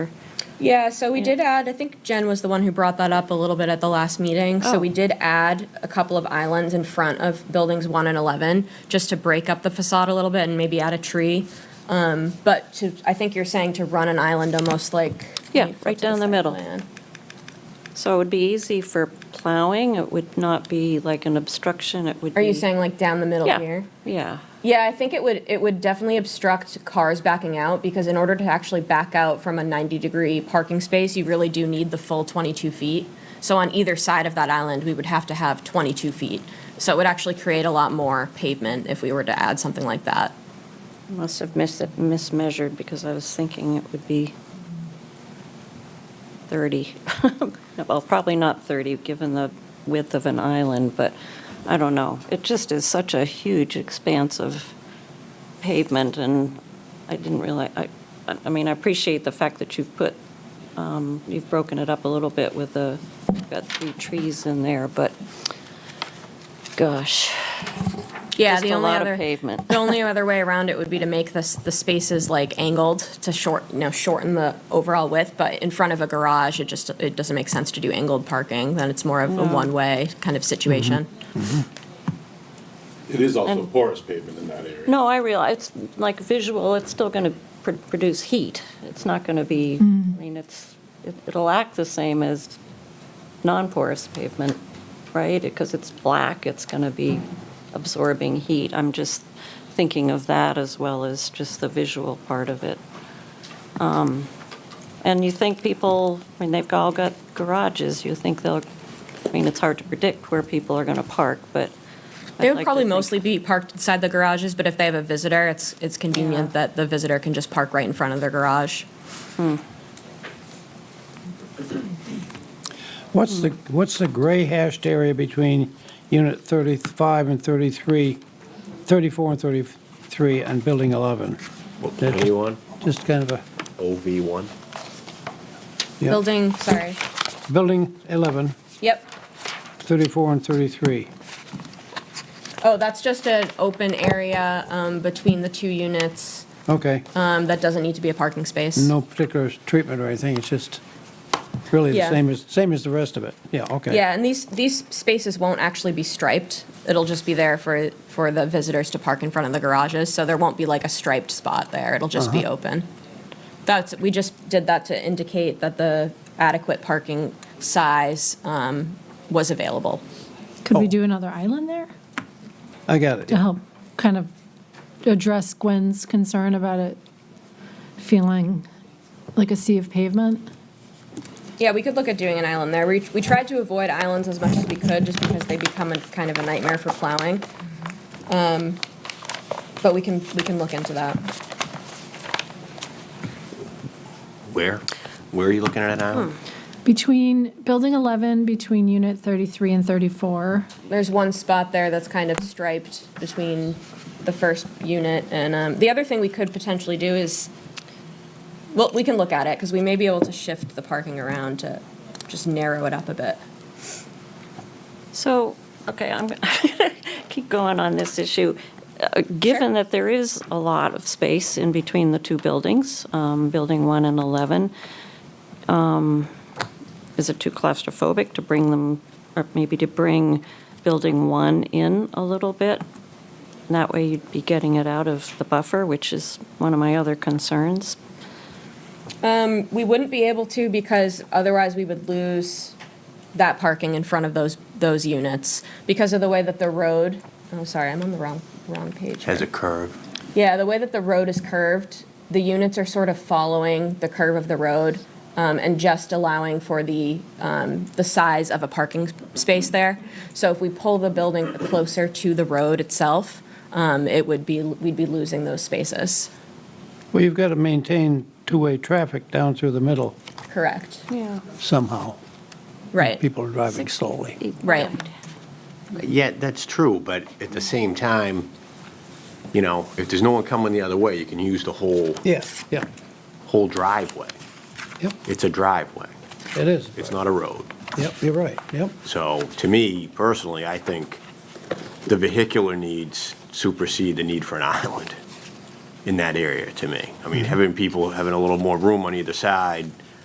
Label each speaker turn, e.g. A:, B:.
A: Yeah, so we did add, I think Jen was the one who brought that up a little bit at the last meeting. So
B: Oh.
A: we did add a couple of islands in front of buildings one and 11, just to break up the facade a little bit and maybe add a tree. Um, But to, I think you're saying to run an island almost like.
B: Yeah,
A: let me flip
B: right
A: to
B: down the
A: site
B: middle.
A: plan.
B: So it would be easy for plowing, it would not be like an obstruction, it would be.
A: Are you saying like down the middle
B: Mm. Yeah,
A: here?
B: yeah,
A: Yeah, I think it would, it would definitely obstruct cars backing out, because in order to actually back out from a 90-degree parking space, you really do need the full 22 feet. So on either side of that island, we would have to have 22 feet. So it would actually create a lot more pavement if we were to add something like that.
B: must have mis- mismeasured because I was thinking it would be 30. Well, probably not 30, given the width of an island, but I don't know. It just is such a huge expanse of pavement and I didn't realize, I, I mean, I appreciate the fact that you've put, um, you've broken it up a little bit with the, got three trees in there, but gosh.
A: Yeah,
B: Just
A: the
B: a
A: only
B: lot of
A: other-
B: pavement.
A: The only other way around it would be to make this, the spaces like angled to short, you know, shorten the overall width, but in front of a garage, it just, it doesn't make sense to do angled parking, then it's more of a one-way kind of situation.
C: It is also
B: And-
C: porous pavement in that area.
B: No, I realize, it's like visual, it's still going to produce heat. It's not going to be, I mean, it's, it- it'll act the same as non-porous pavement, right? Because it's black, it's going to be absorbing heat. I'm just thinking of that as well as just the visual part of it. Um, And you think people, I mean, they've all got garages, you think they'll, I mean, it's hard to predict where people are going to park, but. I'd
A: They would
B: like to
A: probably
B: think-
A: mostly be parked inside the garages, but if they have a visitor, it's, it's convenient
B: Yeah.
A: that the visitor can just park right in front of their garage.
D: What's the, what's the gray hashed area between unit 35 and 33, 34 and 33 and building 11? That's
E: A1,
D: Just kind of
E: OV1.
D: Yeah.
A: Building, sorry.
D: a, building 11,
A: Yep.
D: 34 and 33.
A: Oh, that's just an open area um, between the two units.
D: Okay,
A: um, That doesn't need to be a parking space.
D: no particular treatment or anything, it's just really the
A: Yeah.
D: same as, same as the rest of it. Yeah, okay.
A: Yeah, and these, these spaces won't actually be striped. It'll just be there for, for the visitors to park in front of the garages, so there won't be like a striped spot there. It'll just be open. That's, we just did that to indicate that the adequate parking size um, was available.
F: Could we
D: Oh.
F: do another island there
D: I got it.
F: to
A: Uh-huh.
F: help kind of address Gwen's concern about it feeling like a sea of pavement?
A: Yeah, we could look at doing an island there. We, we tried to avoid islands as much as we could, just because they become a kind of a nightmare for plowing. Um, But we can, we can look into that.
E: Where? Where are you looking at now?
F: Between Building 11, between Unit 33 and 34,
A: There's one spot there that's kind of striped between the first unit and, um, the other thing we could potentially do is, well, we can look at it, because we may be able to shift the parking around to just narrow it up a bit.
B: So, okay, I'm, gonna keep going on this issue. Uh, Given that there is a lot of space in between the two buildings, um, Building 1 and 11, um, is it too claustrophobic to bring them, or maybe to bring Building 1 in a little bit? And That way you'd be getting it out of the buffer, which is one of my other concerns.
A: We wouldn't be able to because otherwise we would lose that parking in front of those, those units because of the way that the road, oh, sorry, I'm on the wrong, wrong page.
E: Has a
A: here.
E: curve.
A: Yeah, the way that the road is curved, the units are sort of following the curve of the road um, and just allowing for the, um, the size of a parking s- space there. So if we pull the building closer to the road itself, um, it would be, we'd be losing those spaces.
D: Well, you've got to maintain two-way traffic down through the middle
A: Correct,
B: Yeah.
D: somehow.
A: right,
D: People are driving slowly.
A: right.
E: Yeah, that's true, but at the same time, you know, if there's no one coming the other way, you can use the whole,
D: Yeah, yeah,
E: whole driveway.
D: yep,
E: It's a driveway.
D: it is.
E: It's not a road.
D: Yep, you're right, yep.
E: So to me personally, I think the vehicular needs supersede the need for an island in that area to me. I mean, having people having a little more room on either side